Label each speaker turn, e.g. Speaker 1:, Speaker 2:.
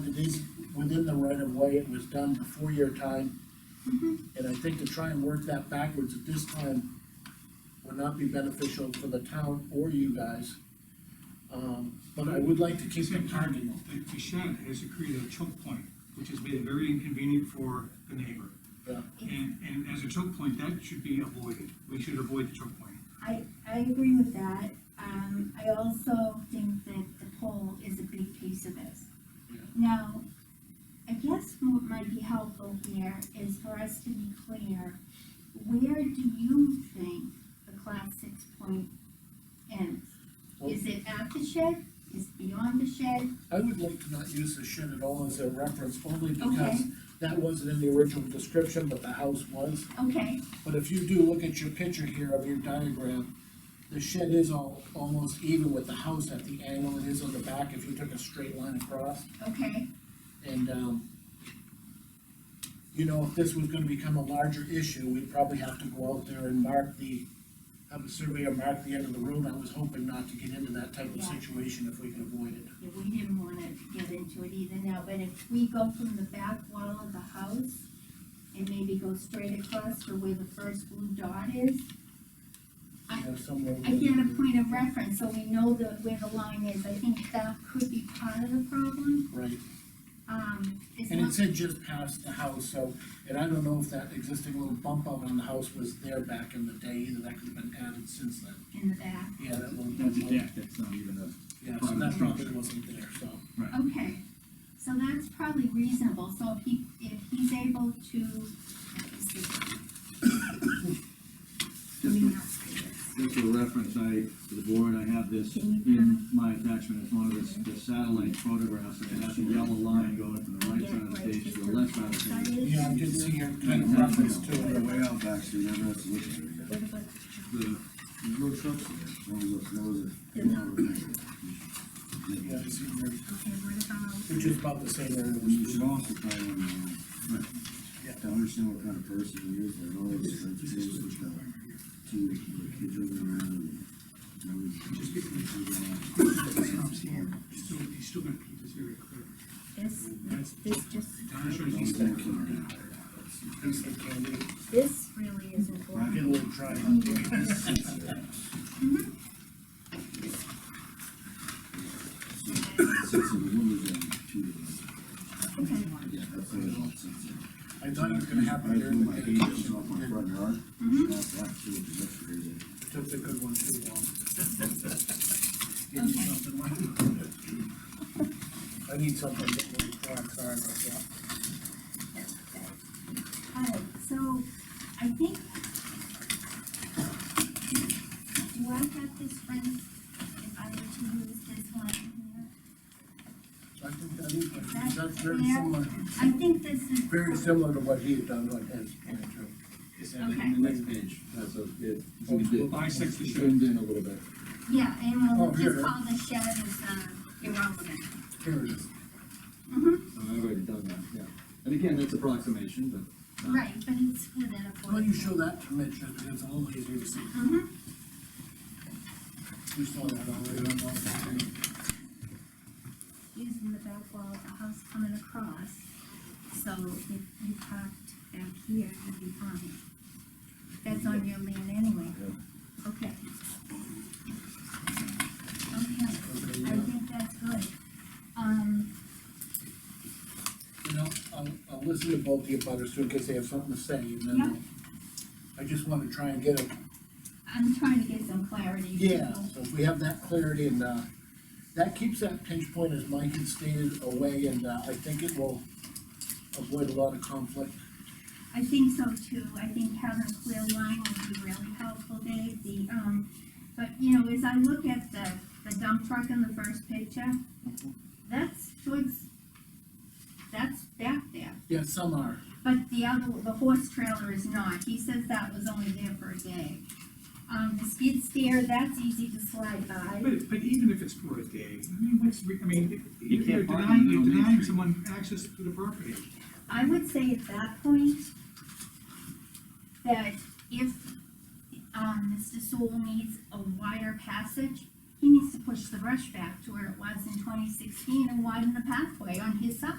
Speaker 1: these, within the right of way, it was done before your time. And I think to try and work that backwards at this time would not be beneficial for the town or you guys. Um, but I would like to keep
Speaker 2: Same
Speaker 1: them
Speaker 2: time,
Speaker 1: parking.
Speaker 2: the, the shed has created a choke point, which has been very inconvenient for the neighbor.
Speaker 1: Yeah.
Speaker 2: And, and as a choke point, that should be avoided, we should avoid the choke point.
Speaker 3: I, I agree with that. Um, I also think that the pole is a big piece of this.
Speaker 1: Yeah.
Speaker 3: Now, I guess what might be helpful here is for us to be clear, where do you think the class six point ends? Is it at the shed? Is it beyond the shed?
Speaker 1: I would like to not use the shed at all as a reference, only because
Speaker 3: Okay.
Speaker 1: that wasn't in the original description, but the house was.
Speaker 3: Okay,
Speaker 1: But if you do look at your picture here of your diagram, the shed is all, almost even with the house at the angle it is on the back, if you took a straight line across,
Speaker 3: okay,
Speaker 1: and, um, you know, if this was gonna become a larger issue, we'd probably have to go out there and mark the, have a surveyor mark the end of the road, I was hoping not to get into that type of
Speaker 3: Yeah.
Speaker 1: situation if we could avoid it.
Speaker 3: Yeah, we didn't wanna get into it either now, but if we go from the back wall of the house and maybe go straight across to where the first blue dot is, I-
Speaker 1: You know, somewhere.
Speaker 3: I get a point of reference, so we know the, where the line is, I think that could be part of the problem,
Speaker 1: Right,
Speaker 3: um, it's
Speaker 1: and it
Speaker 3: not,
Speaker 1: said just past the house, so, and I don't know if that existing little bump out on the house was there back in the day either, that could have been added since then.
Speaker 3: in the back,
Speaker 1: Yeah, that little
Speaker 4: That's a
Speaker 1: bump out,
Speaker 4: deck, that's not even a.
Speaker 1: yeah, so that probably wasn't there, so.
Speaker 3: okay. So that's probably reasonable, so if he, if he's able to, let me see. Let me not say this.
Speaker 4: Just for reference, I, for the board, I have this
Speaker 3: Can
Speaker 1: Mm-hmm.
Speaker 3: you
Speaker 4: in my attachment, it's one of the the satellite photographs, and it has a yellow line going from the right side of the page to the left side of the page.
Speaker 1: Yeah, I did see your kind of reference to
Speaker 5: They're
Speaker 1: it,
Speaker 5: way out back, so you never have to look at it again.
Speaker 4: The-
Speaker 5: There's no trucks in there, no, look, no, look.
Speaker 1: yeah, I see where-
Speaker 3: Okay, what about,
Speaker 1: which is about the same area. as
Speaker 5: You should
Speaker 1: the-
Speaker 5: also try one, uh,
Speaker 1: Yeah.
Speaker 5: to understand what kind of person he is, like all those sensitive with the, to the kids running around and, you know, just get them.
Speaker 2: He's still, he's still gonna keep this area clear.
Speaker 3: this,
Speaker 2: That's,
Speaker 3: this just,
Speaker 2: I'm sure he's gonna keep it.
Speaker 1: Piece of candy,
Speaker 3: this really isn't
Speaker 1: get
Speaker 3: going.
Speaker 1: a little dry on there.
Speaker 4: Mm-hmm.
Speaker 5: Sits in the window down, too.
Speaker 3: Okay,
Speaker 5: Yeah, that's what it all sits in.
Speaker 1: I thought it was gonna happen during the
Speaker 5: I
Speaker 1: day,
Speaker 5: threw my papers off my
Speaker 1: it
Speaker 5: front yard.
Speaker 3: Mhm.
Speaker 5: That's actually the next reason.
Speaker 1: took the good one too long.
Speaker 3: Okay.
Speaker 1: Getting something like- I need something to get really dry, sorry about that.
Speaker 3: alright, so I think. Do I have this friend, if I were to use this one here?
Speaker 1: I think that is,
Speaker 3: That's
Speaker 1: that's very
Speaker 3: clear.
Speaker 1: similar,
Speaker 3: I think this is.
Speaker 1: very similar to what he had done on his, yeah, true.
Speaker 4: It's on the- the next page, that's a, it.
Speaker 1: Okay.
Speaker 2: Bisects the shed.
Speaker 4: Zoomed in a little bit.
Speaker 3: Yeah, and
Speaker 1: Oh,
Speaker 3: we'll
Speaker 1: here,
Speaker 3: just
Speaker 1: huh?
Speaker 3: call the shed as, uh, irrelevant.
Speaker 1: Here it is.
Speaker 3: Mm-hmm,
Speaker 4: No, I've already done that, yeah. And again, that's approximation, but. uh,
Speaker 3: right, but it's within a four.
Speaker 1: Why don't you show that to Mitch, just because it's a little easier to see.
Speaker 3: Mm-hmm,
Speaker 1: We saw that already on the.
Speaker 3: using the back wall of the house coming across, so if you parked back here, you'd be fine. That's on your land anyway. Okay. Okay,
Speaker 1: Okay,
Speaker 3: I
Speaker 1: yeah.
Speaker 3: think that's good. Um,
Speaker 1: You know, I'll, I'll listen to both of you brothers too, in case they have something to say, and then
Speaker 3: Yeah.
Speaker 1: I just wanna try and get a,
Speaker 3: I'm trying to get some clarity.
Speaker 1: yeah, so if we have that clarity and, uh, that keeps that pinch point, as Mike had stated, away, and, uh, I think it will avoid a lot of conflict.
Speaker 3: I think so too, I think having a clear line would be really helpful, Dave, the, um, but, you know, as I look at the, the dump truck in the first picture, that's towards, that's back there,
Speaker 1: Yeah, some are,
Speaker 3: but the other, the horse trailer is not, he says that was only there for a day. Um, the skid steer, that's easy to slide by,
Speaker 2: But, but even if it's for a day, I mean, what's, re- I mean,
Speaker 4: You
Speaker 2: you're
Speaker 4: can't
Speaker 2: you're
Speaker 4: park in
Speaker 2: denying,
Speaker 4: the
Speaker 2: you're
Speaker 4: middle of Main
Speaker 2: denying
Speaker 4: Street.
Speaker 2: someone access to the property.
Speaker 3: I would say at that point, that if, um, Mr. Sewell needs a wider passage, he needs to push the brush back to where it was in twenty sixteen and widen the pathway on his side.